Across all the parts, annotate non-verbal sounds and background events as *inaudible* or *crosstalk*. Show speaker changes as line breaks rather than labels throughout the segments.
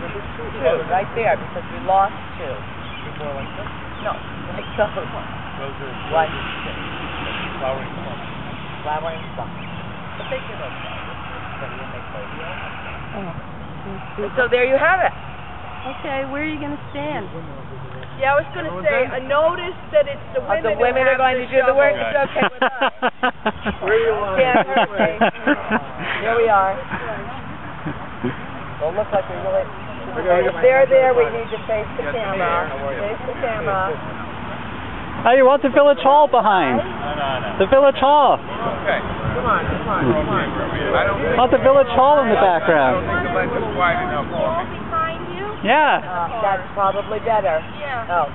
two, right there, because we lost two.
Two more like this?
No, like the other one,
Those are,
like
those are flowering plants.
flowering something. But they give us that, so you make those.
So there you have it.
Okay, where are you gonna stand?
Yeah, I was gonna say, a notice that it's the
Oh,
women
the
who
women are
have
going
to
to do the
shovel.
work, it's okay with *laughs* us.
Where you want?
Yeah, okay. Here we are. Well, it looks like we really, if they're there, we need to face the camera, face the camera.
How Oh, you want the village hall behind? The village hall.
Okay. Come on, come on, come on. I don't think.
Want the village hall in the
I don't
background?
think the lens is wide enough for me.
Yeah.
Uh, That's probably better.
Yeah.
Oh,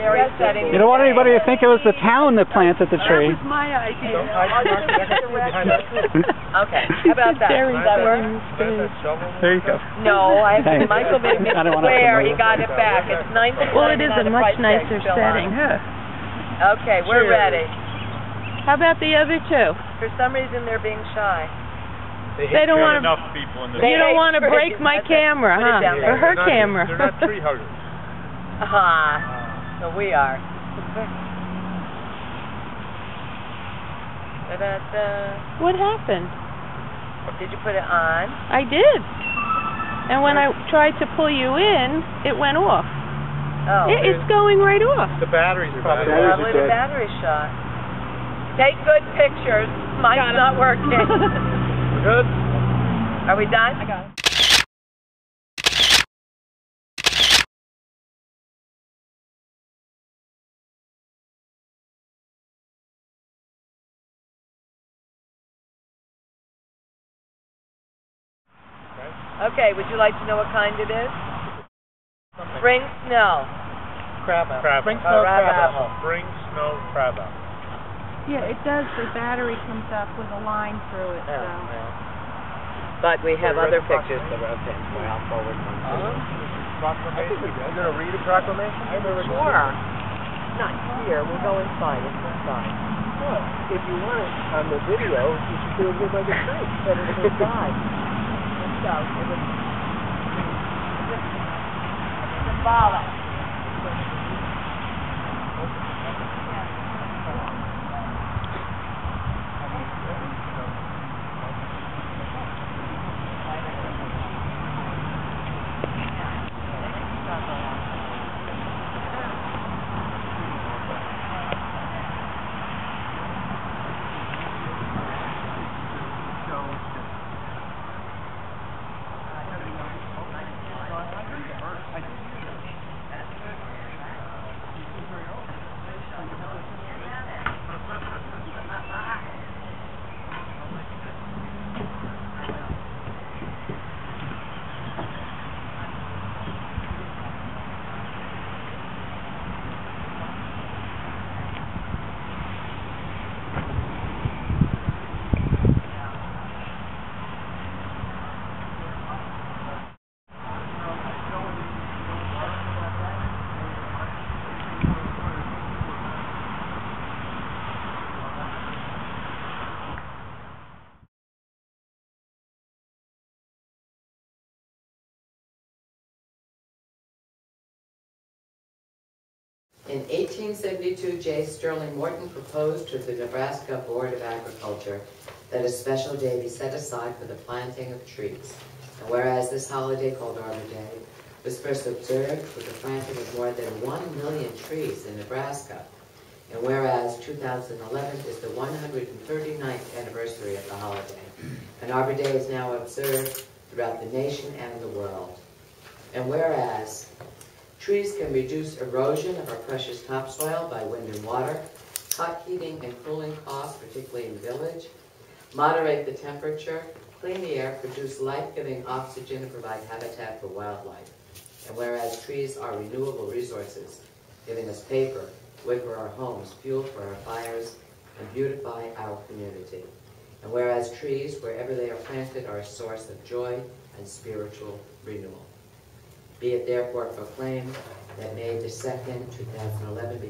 Jerry's setting.
You don't want anybody to think it was the town that planted the tree.
That was my idea.
*laughs*
*laughs*
Okay, how about that? Does that work?
There you go.
No, I,
Thanks.
Michael made me
I don't wanna
swear he got
promote.
it back. It's nine to
*laughs* Well, it is a
the price
much
tag's
nicer
still on.
setting, huh?
Okay, we're ready.
How about the other two?
For some reason, they're being shy.
They don't wanna,
Enough people in the.
They
you don't
hate
wanna
trees.
break my
That's it.
camera,
Put it
huh?
down
Or her
They're not-
camera.
They're not tree
*laughs*
huggers.
Ah, so we are. Da-da-da.
*laughs* What happened?
Did you put it on?
I did. And when I tried to pull you in, it went off.
Oh,
It, it's going right off.
The batteries probably.
probably the battery shot. Take good pictures. Mine's not working.
Good.
Are we done? I got it. Okay, would you like to know what kind it is? Spring snow.
Crab apple. Crab. Bring
snow crab apple.
Bring snow crab apple.
Yeah, it does. The battery comes up with a line through it, so.
Oh, But we have
Wait,
other
where's the
pictures that are okay. Well, I'll forward one.
Uh-huh. Proclamation. You gonna read a proclamation? I never.
Sure. Not here, we'll go inside, it's inside.
If you want it on the video, you should do it with like a tree.
But it's inside. It's out, it was. Symbolic.
In 1872, J. Sterling Morton proposed to the Nebraska Board of Agriculture that a special day be set aside for the planting of trees. And whereas this holiday called Arbor Day was first observed with the planting of more than 1 million trees in Nebraska, and whereas 2011 is the 139th anniversary of the holiday, and Arbor Day is now observed throughout the nation and the world. And whereas Trees can reduce erosion of our precious topsoil by wind and water, cut heating and cooling costs, particularly in the village, moderate the temperature, clean the air, produce life-giving oxygen, and provide habitat for wildlife. And whereas trees are renewable resources, giving us paper, wood for our homes, fuel for our fires, and beautify our community. And whereas trees, wherever they are planted, are a source of joy and spiritual renewal. Be it therefore proclaimed that May the 2nd, 2011 be